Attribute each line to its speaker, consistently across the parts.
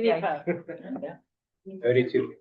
Speaker 1: We need help.
Speaker 2: Thirty-two.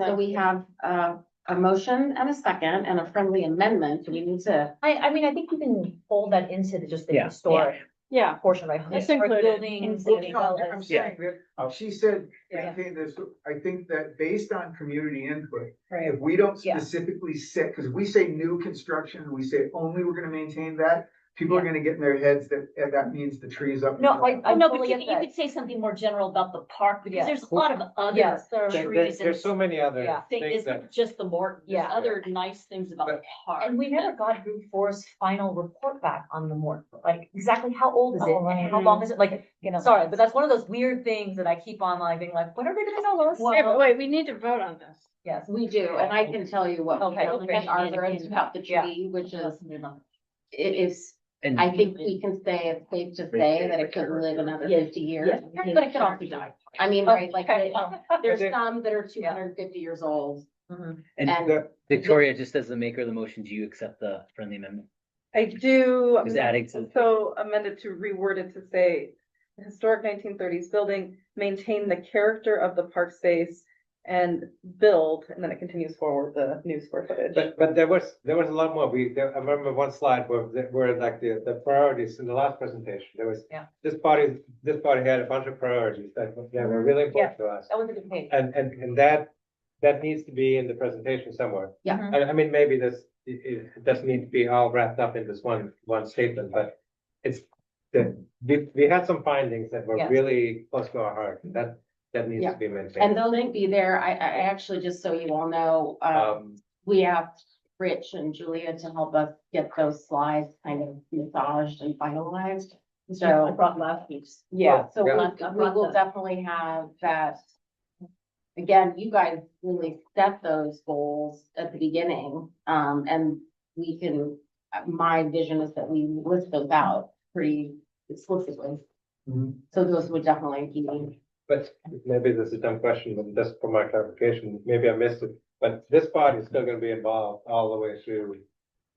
Speaker 3: So we have uh, a motion and a second and a friendly amendment. Do we need to?
Speaker 4: I, I mean, I think you can fold that into the, just the
Speaker 2: Yeah.
Speaker 4: historic
Speaker 1: Yeah,
Speaker 4: portion, right?
Speaker 1: It's
Speaker 4: Historic
Speaker 1: included.
Speaker 4: Buildings
Speaker 1: Included.
Speaker 4: as well as.
Speaker 5: I'm saying that, she said, I
Speaker 4: Yeah.
Speaker 5: think this, I think that based on community input,
Speaker 4: Right.
Speaker 5: if we don't
Speaker 4: Yeah.
Speaker 5: specifically set, because we say new construction, and we say only we're gonna maintain that, people are gonna get in their heads that, eh, that means the tree is up. in
Speaker 4: No,
Speaker 6: Oh,
Speaker 4: I-
Speaker 5: the
Speaker 4: I-
Speaker 6: no, but you
Speaker 4: totally get
Speaker 6: could, you
Speaker 4: that.
Speaker 6: could say something more general about the park,
Speaker 4: Yeah.
Speaker 6: because there's a lot of other
Speaker 4: Yes.
Speaker 2: There-
Speaker 6: trees
Speaker 2: There's,
Speaker 6: and
Speaker 2: there's so many other
Speaker 4: Yeah.
Speaker 2: things
Speaker 6: things,
Speaker 2: that,
Speaker 6: isn't just the Morton, there's
Speaker 4: Yeah.
Speaker 6: other nice things about the
Speaker 2: But-
Speaker 6: park.
Speaker 4: And we never got Route Four's final report back on the more, like, exactly how old is it
Speaker 6: Oh,
Speaker 4: and how
Speaker 1: right.
Speaker 4: long is it? Like,
Speaker 6: You know.
Speaker 4: sorry, but that's one of those weird things that I keep on like being like, what are we gonna tell us?
Speaker 1: Hey, but wait, we need to vote on this.
Speaker 4: Yes,
Speaker 3: We do, and I can tell you what. we
Speaker 4: Okay,
Speaker 3: don't
Speaker 4: great.
Speaker 3: think Our words about the
Speaker 4: Yeah.
Speaker 3: tree, which is,
Speaker 6: Well,
Speaker 3: it is,
Speaker 2: and
Speaker 3: I think we can say, it's safe to say that it could live another
Speaker 4: Yeah.
Speaker 3: fifty years.
Speaker 4: Yeah.
Speaker 3: But it could also die. I mean, right, like,
Speaker 4: Okay.
Speaker 3: there's
Speaker 2: Okay.
Speaker 3: some that are two
Speaker 4: Yeah.
Speaker 3: hundred and fifty years old.
Speaker 4: Mhm.
Speaker 7: And
Speaker 3: And-
Speaker 2: the-
Speaker 7: Victoria, just as the maker of the motion, do you accept the friendly amendment?
Speaker 1: I do.
Speaker 7: Just adding to-
Speaker 1: So amended to reword it to say, "The historic nineteen thirties building, maintain the character of the park space and build, and then it continues forward the new square footage.
Speaker 2: but, but there was, there was a lot more. We, there- I remember one slide where, the- where like the, the priorities in the last presentation, there was.
Speaker 4: Yeah.
Speaker 2: This party, this party had a bunch of priorities that, that were really important to us.
Speaker 4: That was a good page.
Speaker 2: And, and, and that, that needs to be in the presentation somewhere.
Speaker 3: Yeah.
Speaker 4: Mhm.
Speaker 2: I, I mean, maybe this, it, it doesn't need to be all wrapped up in this one, one statement, but it's the, we, we had some findings that were
Speaker 4: Yeah.
Speaker 2: really close to our heart. That, that needs to be maintained.
Speaker 3: And the link be there. I, I I actually, just so you all know, um,
Speaker 2: Um,
Speaker 3: we asked Rich and Julia to help us get those slides kind of massaged and finalized.
Speaker 6: I
Speaker 3: So,
Speaker 6: brought last week's.
Speaker 3: yeah, so
Speaker 2: yeah.
Speaker 3: we, we will definitely have that. Again, you guys really set those goals at the beginning, um, and we can, uh, my vision is that we list those out pretty explicitly.
Speaker 2: Mm-hmm.
Speaker 5: Mhm.
Speaker 3: So those would definitely be,
Speaker 2: But maybe this is a dumb question, but just for my clarification, maybe I missed it, but this party is still gonna be involved all the way through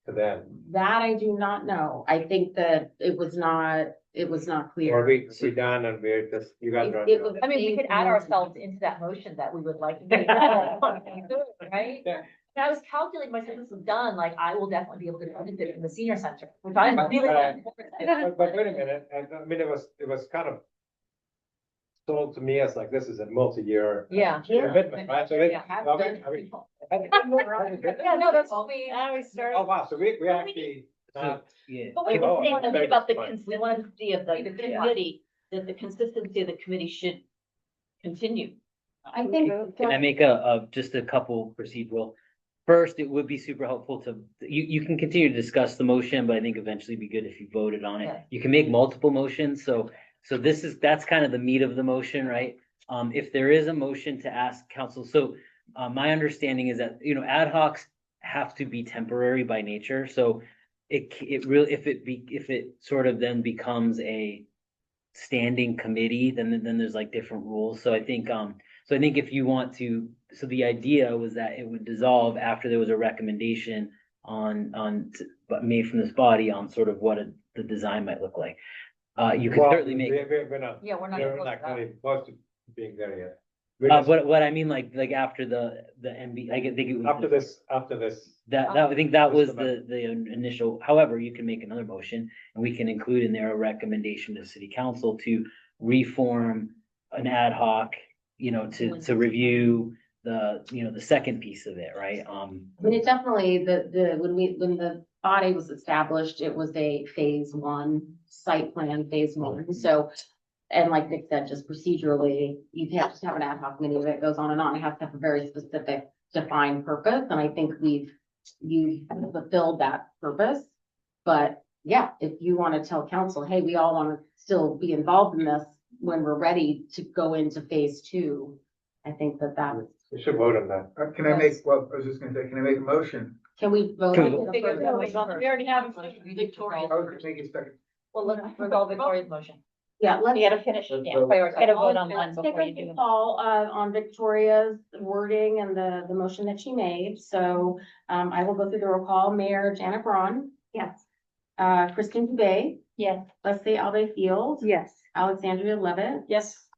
Speaker 2: to them.
Speaker 3: that I do not know. I think that it was not, it was not clear.
Speaker 2: Or we, we done and we're just, you guys
Speaker 3: It-
Speaker 2: are. on
Speaker 3: it
Speaker 2: your own.
Speaker 3: was-
Speaker 4: I mean, we could add ourselves into that motion that we would like. to be Right?
Speaker 2: Yeah.
Speaker 4: And I was calculating, my sentence was done, like, I will definitely be able to benefit from the senior center, which I'm really.
Speaker 2: Right.
Speaker 4: important.
Speaker 2: But, but wait a minute, and I mean, it was, it was kind of sold to me as like, this is a multi-year
Speaker 4: Yeah.
Speaker 2: commitment, right? So it-
Speaker 4: Yeah.
Speaker 2: are we- are we-
Speaker 4: Yeah, no, that's what we.
Speaker 1: I always start.
Speaker 2: Oh, wow, so we, we actually, uh,
Speaker 7: So, Yeah.
Speaker 6: But we
Speaker 2: Oh,
Speaker 6: were saying something
Speaker 2: very
Speaker 6: about the
Speaker 2: good point.
Speaker 6: consistency of the the
Speaker 4: Yeah.
Speaker 6: committee, that the consistency of the committee should continue.
Speaker 3: I think.
Speaker 7: Can I make a, a, just a couple procedural? First, it would be super helpful to, you, you can continue to discuss the motion, but I think eventually it'd be good if you voted on it.
Speaker 4: Yeah.
Speaker 7: You can make multiple motions, so, so this is, that's kind of the meat of the motion, right? Um, if there is a motion to ask council, so, uh, my understanding is that, you know, ad hocs have to be temporary by nature, so it, c- it really, if it be, if it sort of then becomes a standing committee, then, then there's like different rules, so I think, um, so I think if you want to, so the idea was that it would dissolve after there was a recommendation on, on, but made from this body on sort of what a- the design might look like. Uh, you could
Speaker 2: well,
Speaker 7: certainly make,
Speaker 2: we- we- We're not,
Speaker 4: Yeah, we're not.
Speaker 2: we're not
Speaker 4: gonna
Speaker 2: really close to being there yet. We're
Speaker 7: uh,
Speaker 2: just
Speaker 7: what, what I mean, like, like after the, the MB, I get- think it was.
Speaker 2: After
Speaker 7: the-
Speaker 2: this, after this,
Speaker 7: That, that, I think that
Speaker 2: After
Speaker 7: was
Speaker 2: this
Speaker 7: the, the initial, however, you can make another motion and we can include in there a recommendation to city council to reform an ad hoc, you know, to, to review the, you know, the second piece of it, right? Um,
Speaker 3: I mean, it definitely, the, the, when we, when the body was established, it was a phase one, site plan phase
Speaker 7: Mm-hmm.
Speaker 3: one, so. And like Nick said, just procedurally, you have to have an ad hoc committee that goes on and on, it has to have a very specific defined purpose, and I think we've, you've fulfilled that purpose. But yeah, if you wanna tell council, hey, we all wanna still be involved in this when we're ready to go into phase two, I think that that,
Speaker 2: we should vote on that.
Speaker 5: Uh, Can I make, well, I was just gonna say, can I make a motion?
Speaker 3: can we vote?
Speaker 7: Can we-
Speaker 3: on the
Speaker 4: Figure
Speaker 3: first
Speaker 4: it out.
Speaker 3: motion?
Speaker 1: We already have.
Speaker 5: I
Speaker 6: Victoria.
Speaker 5: was gonna make a second.
Speaker 4: Well, let's resolve Victoria's motion.
Speaker 3: Yeah, let's.
Speaker 6: You gotta finish,
Speaker 5: it, yeah.
Speaker 4: Prioritize. Get a vote on
Speaker 3: Let's
Speaker 4: one
Speaker 3: take
Speaker 4: before
Speaker 3: a
Speaker 4: you do.
Speaker 3: Call, uh, on Victoria's wording and the, the motion that she made, so, um, I will go through the roll call, Mayor Janet Braun.
Speaker 6: Yes.
Speaker 3: Uh, Kristen Dubay,
Speaker 6: Yes.
Speaker 3: Leslie Alde Field,
Speaker 1: Yes.
Speaker 3: Alexandria Levitt,
Speaker 1: Yes.